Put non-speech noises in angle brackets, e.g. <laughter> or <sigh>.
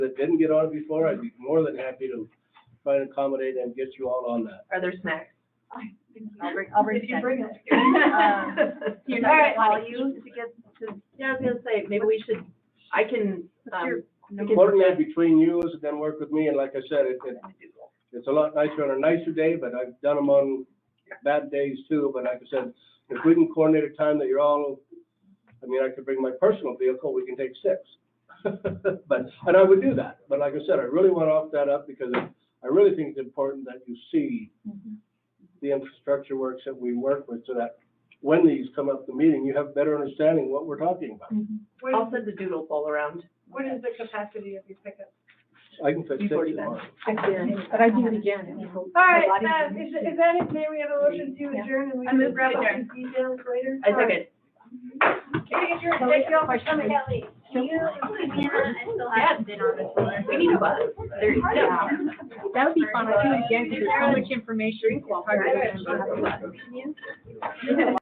that didn't get on before, I'd be more than happy to try and accommodate and get you all on that. Are there <laughs> snacks? I'll bring, I'll bring If you bring it. <laughs> Um, You're not gonna call you to get, to, Yeah, I was gonna say, maybe we should, I can, what's your um, number? Coordinate between you and then work with me, and like I said, it, it, it's a lot nicer on a nicer day, but I've done them on bad days too, but like I said, if we can coordinate a time that you're all, I mean, I could bring my personal vehicle, we can take six. <laughs> But, and I would do that, but like I said, I really want to off that up because I really think it's important that you see Mm-hmm. the infrastructure works that we work with, so that when these come up the meeting, you have better understanding what we're talking about. What I'll is, send the doodle poll around. what is the capacity of your pickup? I can fix it Before you tomorrow. But I do it again. All right, uh, is, is that it, may we have a motion to adjourn and we I can move grab to up the details later? I second. Okay, adjourn, thank you all for coming. Kelly, do you, Hannah, I still haven't been on the tour. We need a bus. There's, yeah. That would be fun, I do it again, 'cause there's so much information. it's hard to remember.